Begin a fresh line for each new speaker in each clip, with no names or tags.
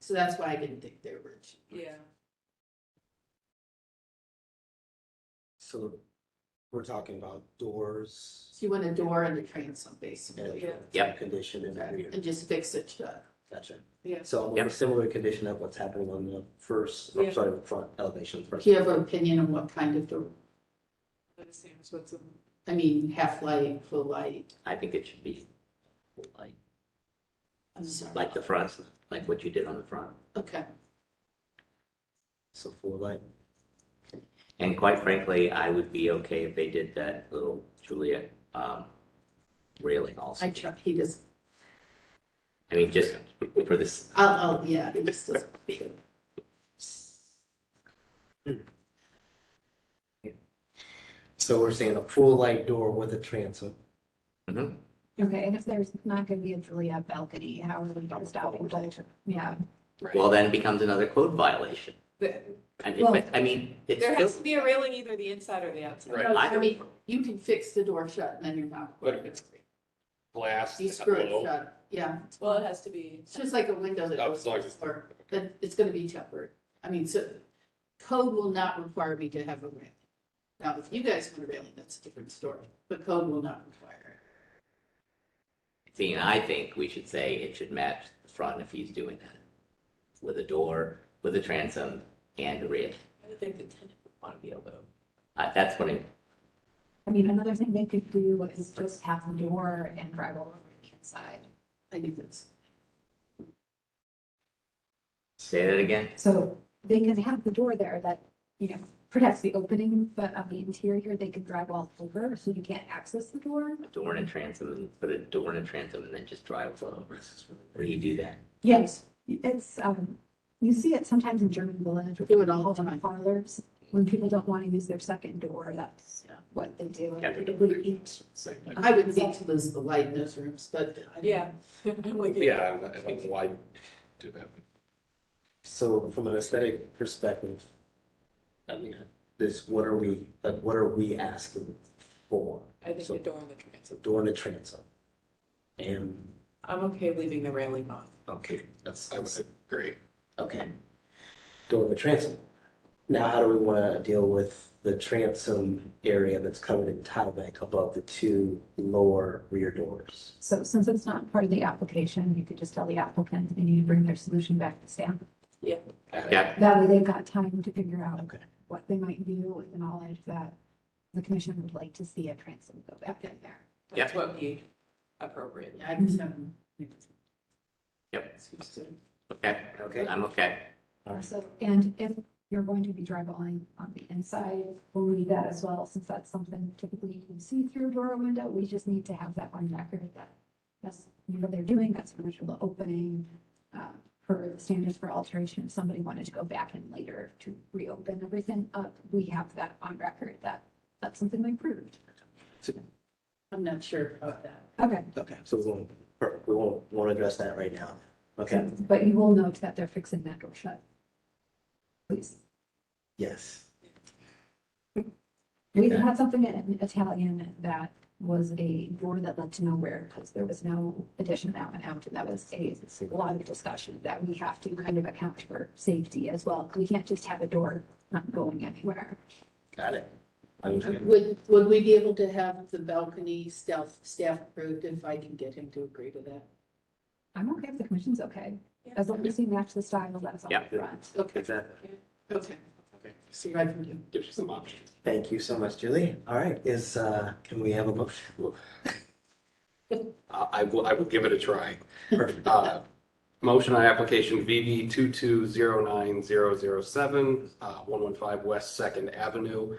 So that's why I didn't think they were. cheap.
Yeah,
So we're talking about doors.
So you want a door and a transom basically,
Yeah.
Yep.
Condition and everything,
and just fix it uh, shut.
gotcha.
yeah.
So
Yep.
a similar condition of what's happening on the first,
Yeah.
I'm sorry, the front elevation first.
Do you have an opinion on what kind of door,
But it seems what's in-
I mean, half light, full light?
I think it should be like,
I'm sorry.
like the front, like what you did on the front.
Okay,
So full light,
And quite frankly, I would be okay if they did that little Juliet um, railing also.
I try, he just,
I mean, just for this,
I'll, I'll, yeah, he just doesn't.
so we're saying a full light door with a transom.
Mhm.
Okay, and if there's not gonna be a Juliet balcony, how are we gonna stop people? Yeah,
well, then it becomes another code violation.
There
And
Well-
it- I mean, it's
there has
still,
to be a railing either the inside or the outside.
Right.
No, I mean, you can fix the door shut and then you're not.
But if it's glass.
You
down
screw it
below,
shut, yeah.
Well, it has to be,
It's just like a window that
Oh,
opens
as long as it's-
or that it's gonna be tempered. I mean, so code will not require me to have a railing. Now, if you guys want a railing, that's a different story, but code will not require
seeing, I think we should say it should match the front if he's doing that. With a door, with a transom and a rail.
I would think the tenant would want to be able to.
Uh, That's what I,
I mean, another thing they could do is just have the door and drive over to the inside.
it. I think that's,
say that again.
So they can have the door there that, you know, protects the opening, but on the interior, they can drive all over, so you can't access the door.
a door and a transom, and put a door and a transom, and then just drive over. Where do you do that?
Yes. It's, um, you see it sometimes in German village. with
Do it all the
people
time.
in Parlors, when people don't want to use their second door, that's
Yeah.
what they do.
Yeah, they
They would each
uh,
I would need to lose the light in those rooms, but. I-
Yeah. Like,
Yeah, I don't know why do that.
So from an aesthetic perspective, I mean, this, what are we, like, what are we asking for?
I think
So
the door and the transom.
a door and a transom. And,
I'm okay leaving the railing off.
okay, that's,
I
that's
would agree.
Okay. Door with transom. Now, how do we want to deal with the transom area that's covered in tile bank above the two lower rear doors?
So since it's not part of the application, you could just tell the applicant they need to bring their solution back to staff.
Yeah,
That way they've got time to figure out
Okay.
what they might do with the knowledge that the commission would like to see a transom go back in there.
That's what we appropriate.
I just haven't.
Yep.
Excuse me.
okay,
Okay.
I'm okay.
So, and if you're going to be drywalling on the inside, we'll leave that as well, since that's something typically you can see through a door or window. We just need to have that on record that that's what they're doing, that's an original opening. uh, Per the standards for alteration, if somebody wanted to go back in later to reopen everything up, we have that on record that that's something we approved.
I'm not sure about that.
Okay,
Okay, so we won't, perfect, we won't, won't address that right now. Okay,
but you will note that they're fixing that door shut. Please.
yes.
We
Okay.
had something in Italian that was a door that led to nowhere because there was no addition out and out. And that was a lot of discussion that we have to kind of account for safety as well. 'cause We can't just have a door not going anywhere.
Got it. Okay.
Would, would we be able to have the balcony staff, staff approved if I can get him to agree to that?
I'm okay if the commission's okay. As long as you match the style that's on
Yeah.
the front.
Okay,
Exactly.
okay. See what I can do.
Gives you some options.
Thank you so much, Julie. All right, is, uh, can we have a motion?
I, I will, I will give it a try.
Perfect.
Uh, Motion on application VB two two zero nine zero zero seven, uh, one one five West Second Avenue.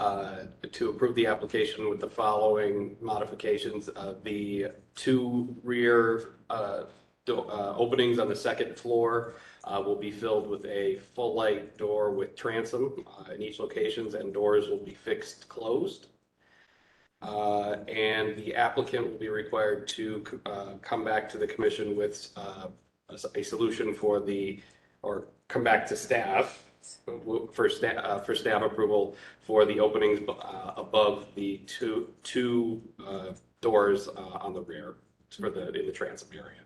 uh, To approve the application with the following modifications, Uh, the two rear uh, do- uh, openings on the second floor uh, will be filled with a full light door with transom uh, in each locations and doors will be fixed closed. Uh, And the applicant will be required to uh, come back to the commission with uh, a s- a solution for the, or come back to staff for staff, for staff approval for the openings uh, above the two, two uh, doors uh, on the rear for the, in the transom area.